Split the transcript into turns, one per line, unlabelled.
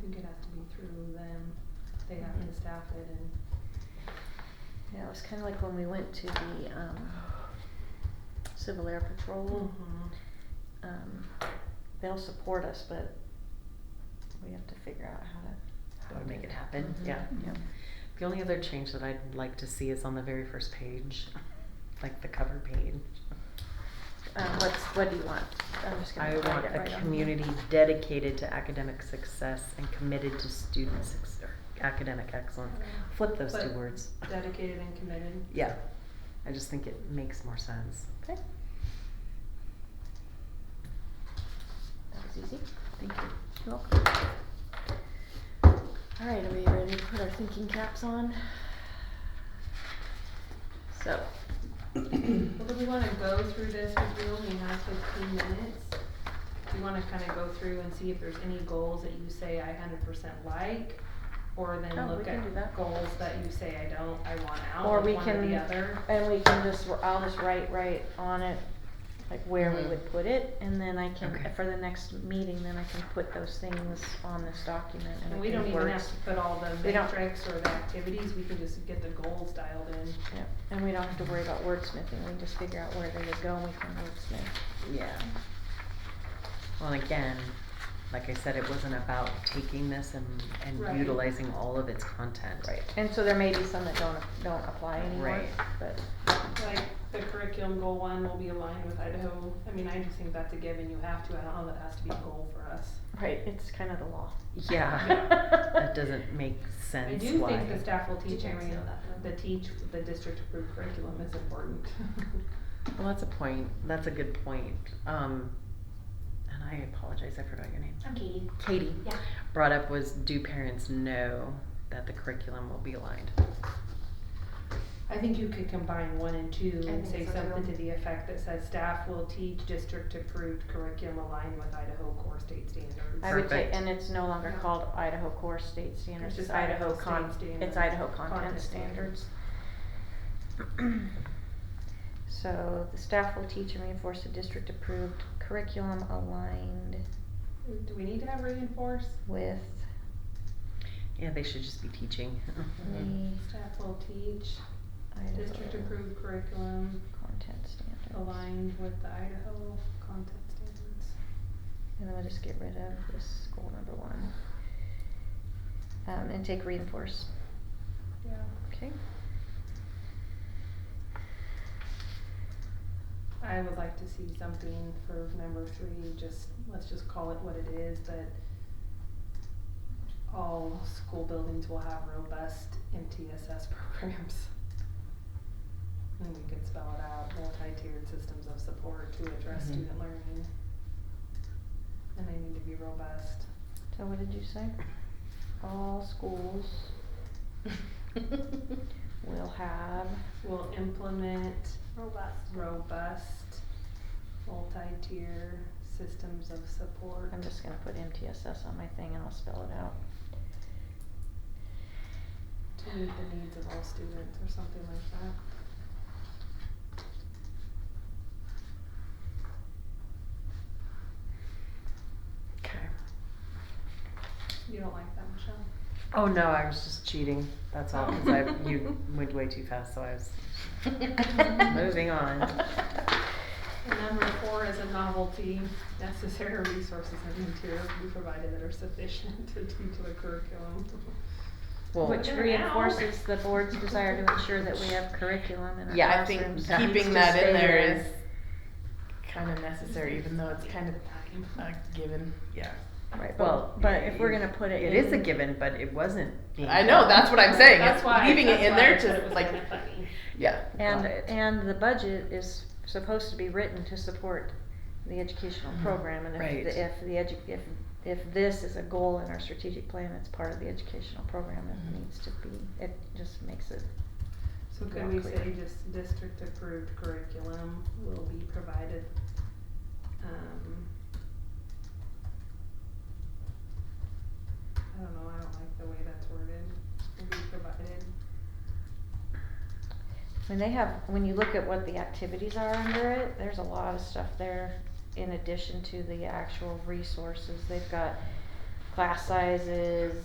think it has to be through them, they have to
Mhm.
staff it and.
Yeah, it was kind of like when we went to the um, Civil Air Patrol. Um, they'll support us, but we have to figure out how to, how to make it happen.
Mhm.
Yeah, yeah.
The only other change that I'd like to see is on the very first page, like the cover page.
Um, what's what do you want? I'm just gonna
I
find
want
it
a
right off.
community dedicated to academic success and committed to student success, academic excellence. Flip those two
But
words.
Dedicated and committed.
Yeah, I just think it makes more sense.
Okay. That was easy.
Thank you.
You're welcome. All right, are we ready to put our thinking caps on? So,
Well, do we wanna go through this, cause we only have fifteen minutes? Do you wanna kinda go through and see if there's any goals that you say I hundred percent like? Or
Oh,
then
we
look
can do that.
at goals that you say I don't, I want out,
Or we
like one or
can-
the other?
and we can just, I'll just write right on it, like where we
Mm-hmm.
Mhm.
would put it, and then I can,
Okay.
for the next meeting, then I can put those things on this document and
And
it
we don't
can
even
work.
have to put all the
We don't-
metrics or the activities, we can just get the goals dialed in.
Yeah, and we don't have to worry about wordsmithing, we just figure out where they would go and we can wordsmith.
Yeah. Well, and again, like I said, it wasn't about taking this and,
Right.
and utilizing all of its content.
Right, and so there may be some that don't, don't apply anymore,
Right.
but,
Like, the curriculum goal one will be aligned with Idaho, I mean, I just think that's a given, you have to, I don't know, that has to be a goal for us.
right, it's kind of the law.
Yeah, that doesn't make sense.
I do
why.
think the staff will teach,
Did you
I mean,
know that?
the teach, the district approved curriculum is important.
Well, that's a point. That's a good point. Um, and I apologize, I forgot your name.
I'm Katie.
Katie
Yeah.
brought up was do parents know that the curriculum will be aligned?
I think you could combine one and two
I
and say
think so,
something
too.
to the effect that says, staff will teach district approved curriculum aligned with Idaho core state standards.
I would say,
Perfect.
and it's no longer
Yeah.
called Idaho Core State Standards,
just
it's Idaho
Idaho
con,
State
it's
Standards.
Idaho Content
Content
Standards. So the staff will teach and reinforce the district approved curriculum aligned
Do we need to have reinforce?
with
Yeah, they should just be teaching. Mm-hmm.
the
Staff will teach district
Idaho
approved curriculum
content standards.
aligned with the Idaho content standards.
And then we'll just get rid of this goal number one. Um, and take reinforce,
Yeah,
okay?
I would like to see something for number three, just, let's just call it what it is, but all school buildings will have robust MTSS programs. And we could spell it out, multi-tiered systems of support to address
Mhm.
student learning. And they need to be robust.
So what did you say? All schools will have,
Will implement
Robust.
robust, multi-tier systems of support.
I'm just gonna put MTSS on my thing and I'll spell it out.
To meet the needs of all students or something like that.
Okay.
You don't like that, Michelle?
Oh no, I was just cheating. That's all. Because I you went way too fast, so I was. Moving on.
And number four is a novelty, necessary resources and materials to be provided that are sufficient to teach the curriculum.
Well,
Which
They're out.
reinforces the board's desire to ensure that we have curriculum in our classrooms.
Yeah, I think
It needs to
keeping that
stay
in there is kind of necessary, even though it's kind of not given. Yeah.
Right,
well,
but, but if we're gonna put it in.
it is a given, but it wasn't. Being
I know, that's what I'm saying.
That's
is
why-
Leaving
that's
it in
why I
there
said it was
to, like,
kinda funny.
yeah.
And,
got it.
and the budget is supposed to be written to support the educational
Mhm.
program, and if,
Right.
the- if the edu, if, if this is a goal in our strategic plan, it's part of the educational program, it
Mhm.
needs to be, it just makes it,
So could
More
we
clear.
say just district approved curriculum will be provided, um. I don't know, I don't like the way that's worded, will be provided,
when they have, when you look at what the activities are under it, there's a lot of stuff there in addition to the actual resources, they've got class sizes,